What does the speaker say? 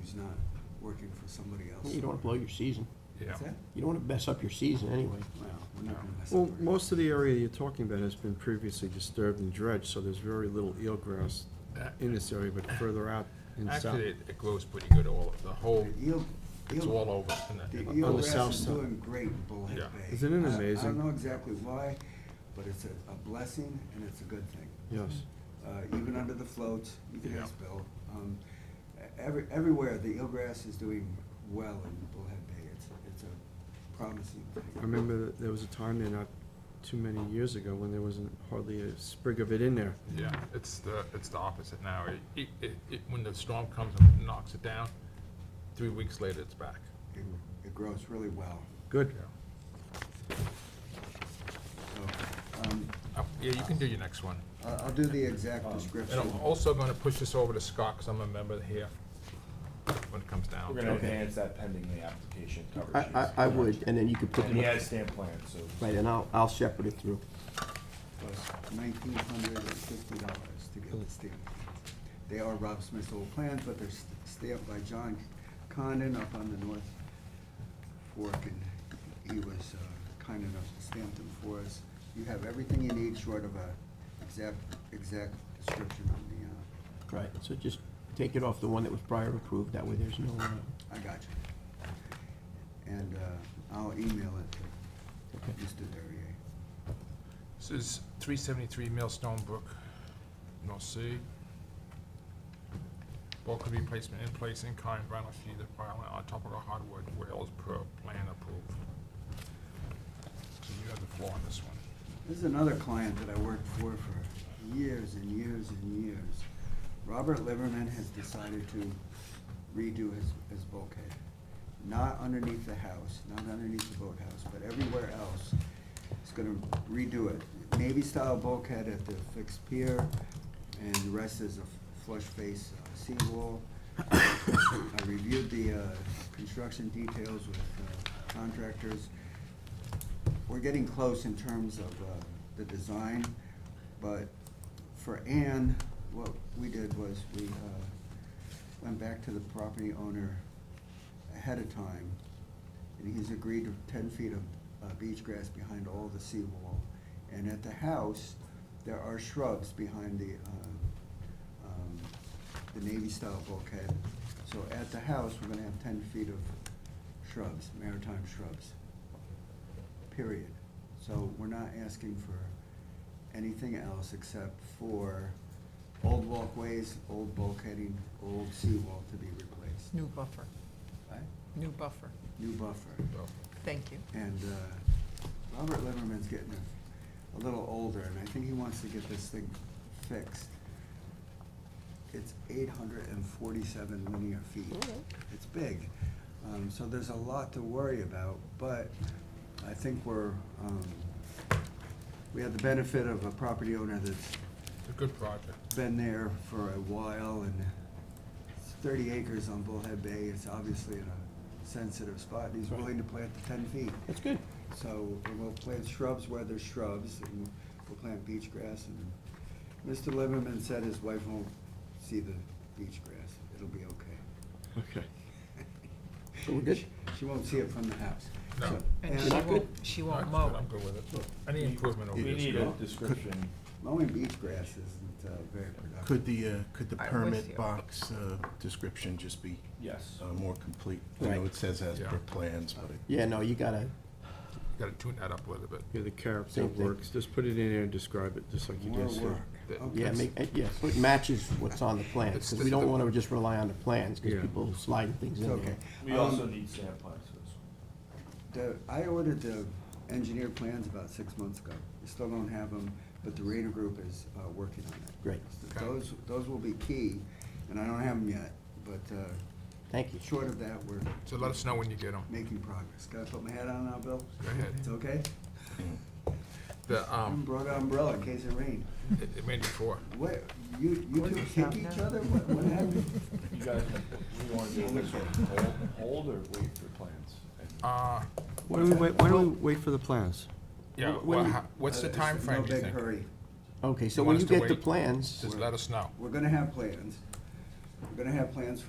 he's not working for somebody else. You don't want to blow your season. Yeah. What's that? You don't want to mess up your season anyway. Wow, we're not gonna mess up Well, our- most of the area you're talking about has been previously disturbed and dredged, so there's very little eelgrass in this area, but further out in south. Uh, Actually, it it glows pretty good all, the whole, The eel- it's eel- all over. in that- The in on the eelgrass south is side. doing great in Bullhead Yeah. Bay. Isn't it I- I amazing? don't know exactly why, but it's a a blessing and it's a good thing. Yes, uh, even under the floats, you can Yeah. ask Bill. Um, e- every, everywhere, the eelgrass is doing well in Bullhead Bay. It's, it's a promising I thing. remember that there was a time there not too many years ago when there wasn't hardly a sprig of it in there. Yeah, it's the, it's the opposite now. It- It, it, it, when the storm comes and knocks it down, three weeks later, it's back. It, it grows really well. Good. So, um, Uh, Yeah, you can do your next one. I'll, I'll do the exact And description. I'm also gonna push this over to Scott, 'cause I'm a member here, when it comes down. We're to gonna it. enhance that pending the application I, coverage. I, I would, and then you could put And he them, has stamp plans, so. right, and I'll, I'll shepherd it through. Nineteen hundred and fifty dollars to get the stamp. They are Rob Smith's old plans, but they're st- stamped by John Condon up on the North Fork, and he was uh, kind enough to stamp them for us. You have everything you need short of a exact, exact description on the, uh, Right, so just take it off the one that was prior approved, that way there's no, uh, uh, I got you. And uh, I'll email it to Mr. Derrier. This is three seventy-three Millstone Brook, North Sea. Bulk could be placement in place in kind, vinyl sheet, of vinyl on top of a hardwood rails per plan approved. So you have the floor on this one. This is another client that I worked for for years and years and years. Robert Liverman has decided to redo his, his bulkhead. Not underneath the house, not underneath the boathouse, but everywhere else. He's gonna redo it. Navy-style bulkhead at the fixed pier, and the rest is a flush face uh, seawall. I reviewed the, uh, construction details with uh, contractors we're getting close in terms of uh, the design, but for Ann, what we did was we uh, went back to the property owner ahead of time, and he's agreed to ten feet of uh, beach grass behind all the seawall. And at the house, there are shrubs behind the, uh, um, the Navy-style bulkhead. So at the house, we're gonna have ten feet of shrubs, maritime shrubs period. So we're not asking for anything else except for old walkways, old bulkheading, old seawall to be replaced. New buffer, Right? new buffer, New buffer. So, thank you. And uh, Robert Liverman's getting a- a little older, and I think he wants to get this thing fixed. It's eight hundred and forty-seven linear feet. It's big. Um, So there's a lot to worry about, but I think we're, um, we have the benefit of a property owner that's It's a good project. been there for a while and it's thirty acres on Bullhead Bay. It's obviously in a sensitive spot. and He's willing to plant the ten feet. that's good. So and we'll plant shrubs where there's shrubs, and we'll plant beach grass. And Mr. Lieberman said his wife won't see the beach grass. It'll be okay. Okay. So we're good? She won't see it from the house. No. So- And and she not won't, good? she No, won't it's good. mow. I'm good with it. Any improvement over We this? need good. a description. Mowing beach grass isn't uh, very productive. Could the, uh, could the I was here. permit box uh, description just be Yes. uh, more complete? I know Right. it says as Yeah. per plans, but it Yeah, no, you gotta, Gotta tune that up a little bit. Yeah, the carrots, Same that thing. works. Just put it in there and describe it, just like you More just said. work. Yeah, Okay. yeah, make, eh, yeah, so it matches what's on the plans, because we don't want to just rely on the plans, because Yeah. people slide things in Okay. there. We Um, also need stamp plans for this one. The, I ordered the engineer plans about six months ago. We still don't have them, but the Rayner Group is, uh, working on it. Great. So Those, those will be key, and I don't have them yet, but, uh, Thank you. short of that, we're So let us know when you get them. making progress. Gotta put my hat on now, Bill? Go ahead. It's okay? The, I um, brought an umbrella in case it rained. it it made before. What, you, you two kick each other? What, what happened? You guys, we wanna do this one, hold, hold or wait for plans? Uh, Why don't we wait, why don't we wait for the plans? yeah, When- Uh, well, when- how- what's the Uh, time frame? No do you big think? hurry. Okay, so You when want you us to get the wait? plans. Just let us know. We're gonna have plans. We're gonna have plans for